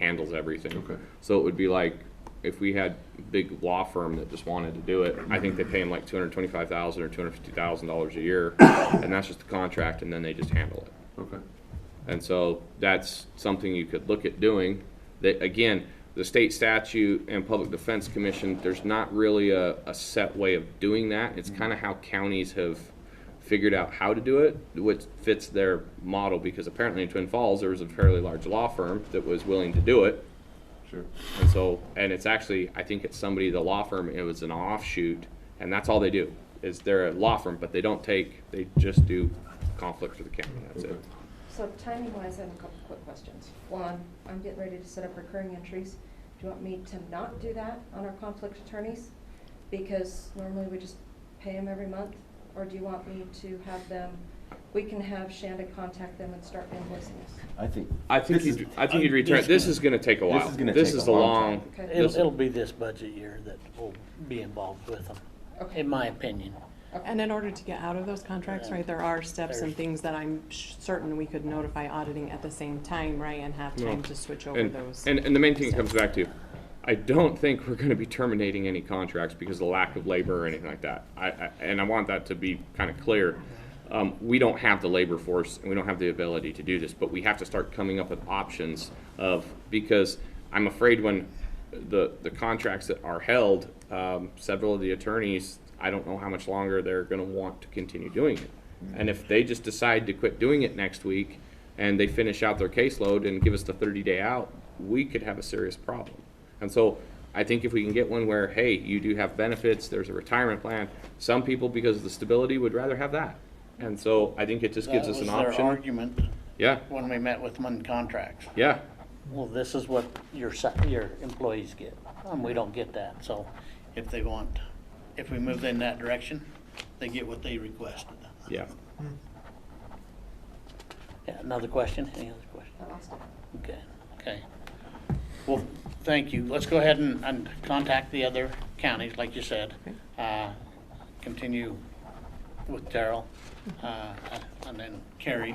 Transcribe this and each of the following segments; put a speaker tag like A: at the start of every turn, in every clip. A: handles everything.
B: Okay.
A: So it would be like, if we had a big law firm that just wanted to do it, I think they pay them like two hundred twenty-five thousand or two hundred fifty thousand dollars a year, and that's just the contract, and then they just handle it.
B: Okay.
A: And so that's something you could look at doing. That, again, the state statute and Public Defense Commission, there's not really a, a set way of doing that. It's kind of how counties have figured out how to do it, which fits their model, because apparently in Twin Falls, there was a fairly large law firm that was willing to do it.
B: Sure.
A: And so, and it's actually, I think it's somebody, the law firm, it was an offshoot, and that's all they do, is they're a law firm, but they don't take, they just do conflict for the county, that's it.
B: Okay.
C: So timing wise, I have a couple quick questions. One, I'm getting ready to set up recurring entries. Do you want me to not do that on our conflict attorneys? Because normally we just pay them every month, or do you want me to have them, we can have Shanda contact them and start invoicing us?
D: I think.
A: I think
D: this is-
A: you'd, I think you'd return, this is gonna take a
D: This
A: while.
D: is gonna
A: This
D: take
A: is a
D: a long
A: long.
C: time. Okay.
E: It'll,
A: this-
E: it'll be this budget year that we'll be involved with them,
C: Okay.
E: in my opinion.
C: Okay.
F: And in order to get out of those contracts, right, there are steps and things that I'm sh- certain we could notify auditing at the same time, right, and have time
A: No.
F: to switch over
A: And,
F: those.
A: and, and the main thing it comes
F: steps.
A: back to, I don't think we're gonna be terminating any contracts because of the lack of labor or anything like that. I, I, and I want that to be kinda clear. Um, we don't have the labor force and we don't have the ability to do this, but we have to start coming up with options of, because I'm afraid when the, the contracts that are held, um, several of the attorneys, I don't know how much longer they're gonna want to continue doing it. And if they just decide to quit doing it next week, and they finish out their caseload and give us the thirty day out, we could have a serious problem. And so I think if we can get one where, hey, you do have benefits, there's a retirement plan, some people, because of the stability, would rather have that. And so I think it just gives us an
E: That was
A: option.
E: their argument
A: Yeah,
E: when we met with them on contracts.
A: yeah,
E: Well, this is what your, sa- your employees get, and we don't get that, so if they want, if we move in that direction, they get what they requested.
A: yeah.
E: Yeah, another question, any other question?
C: I lost it.
E: Okay, okay. Well, thank you. Let's go ahead and, and contact the other counties, like you said. Uh, Continue with Daryl, uh, and then Kerry.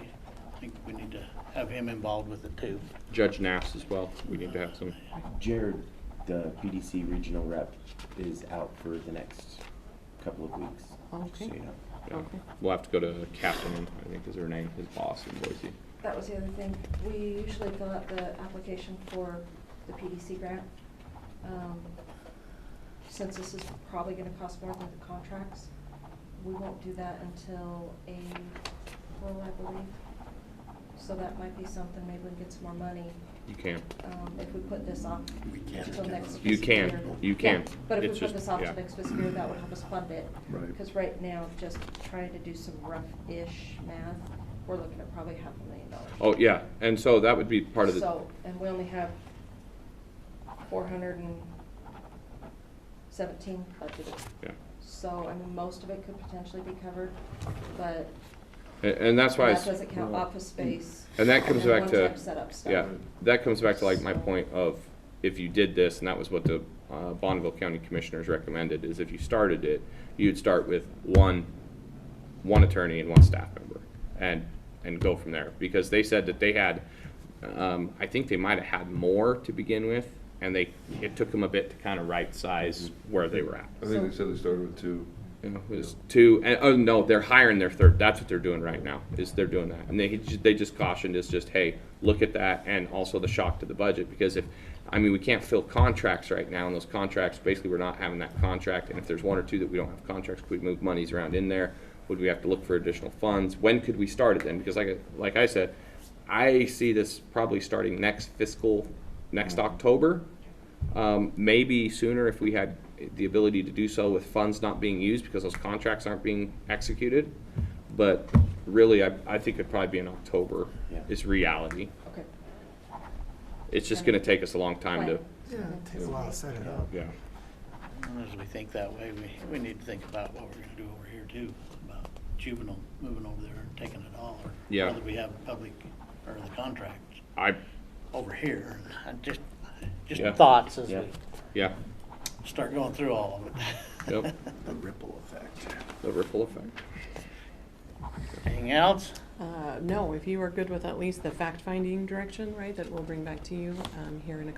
E: I think we need to have him involved with it too.
A: Judge Nass as well, we need to have some,
D: Jared, the PDC regional rep, is out for the next couple of weeks. just so
F: Okay.
D: you know.
A: yeah.
F: Okay.
A: We'll have to go to Captain, I think is her name, his boss in Boise.
C: That was the other thing. We usually fill out the application for the PDC grant. Um, Since this is probably gonna cost more than the contracts, we won't do that until April, I believe. So that might be something, maybe we can get some more money,
A: You can,
C: um, if we put this off until next fiscal year.
A: You can. You
C: Yeah,
A: can.
C: But if
A: It's
C: we put
A: just-
C: this off
A: yeah.
C: to next fiscal year, that would help us fund it.
B: Right.
C: Cause right now, just trying to do some rough-ish math, we're looking at probably half a million dollars.
A: oh, yeah, and so that would be part of the,
C: So, and we only have four hundred and seventeen budgeted.
A: yeah.
C: So, I mean, most of it could potentially be covered, but
A: And, and that's why.
C: that
A: it's-
C: doesn't count office space.
A: And that comes
C: then
A: back to,
C: one-time setup stuff.
A: yeah, that comes back to like my
C: So-
A: point of, if you did this, and that was what the uh, Bonneville County Commissioners recommended, is if you started it, you'd start with one, one attorney and one staff member, and, and go from there. Because they said that they had, um, I think they might have had more to begin with, and they, it took them a bit to kind of right-size where they were at.
B: I think they said they started with two.
A: You know, is two, and, oh, no, they're hiring their third, that's what they're doing right now, is they're doing that. And they, ju- they just cautioned, is just, hey, look at that, and also the shock to the budget, because if, I mean, we can't fill contracts right now, and those contracts, basically, we're not having that contract, and if there's one or two that we don't have contracts, could we move monies around in there? Would we have to look for additional funds? When could we start it then? Because like, I- like I said, I see this probably starting next fiscal, next October, um, maybe sooner if we had the ability to do so with funds not being used because those contracts aren't being executed. But really, I, I think it'd probably be in October
D: Yeah.
A: is reality.
C: Okay.
A: It's just gonna take us a long time to,
C: Plan.
G: Yeah, it takes a while to set it up.
A: yeah.
E: And As we think that way, we, we need to think about what we're gonna do over here too, about juvenile moving over there and taking it all, or
A: Yeah.
E: whether we have public, or the contract
A: I,
E: over here. I just, just
A: Yeah.
E: thoughts as
D: Yeah.
E: we
A: yeah,
E: start going through all of it.
A: yep,
B: The ripple effect.
A: the ripple effect.
E: Anything else?
F: Uh, no, if you are good with at least the fact-finding direction, right, that we'll bring back to you, um, here in a